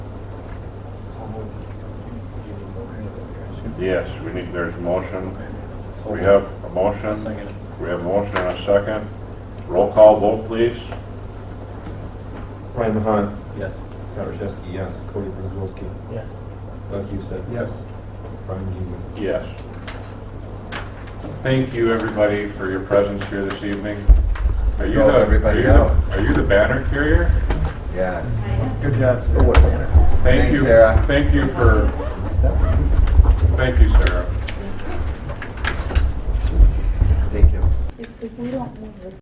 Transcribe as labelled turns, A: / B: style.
A: Yes, we need, there's a motion. We have a motion.
B: Second.
A: We have a motion and a second. Roll call vote, please.
C: Ryan Mahan,
B: Yes.
C: Pat Rashewski, yes. Cody Prisbylski,
B: Yes.
C: Doug Houston. Yes. Brian Geezy.
A: Yes. Thank you, everybody, for your presence here this evening. Are you
D: Drove
A: the- are
D: everybody
A: you the-
D: out.
A: Are you the banner carrier?
D: Yes.
B: Good job,
C: Oh,
B: sir.
A: Thank
D: Thanks,
A: you.
D: Sarah.
A: Thank you for, thank you, Sarah.
D: Thank you.
E: If, if we don't move this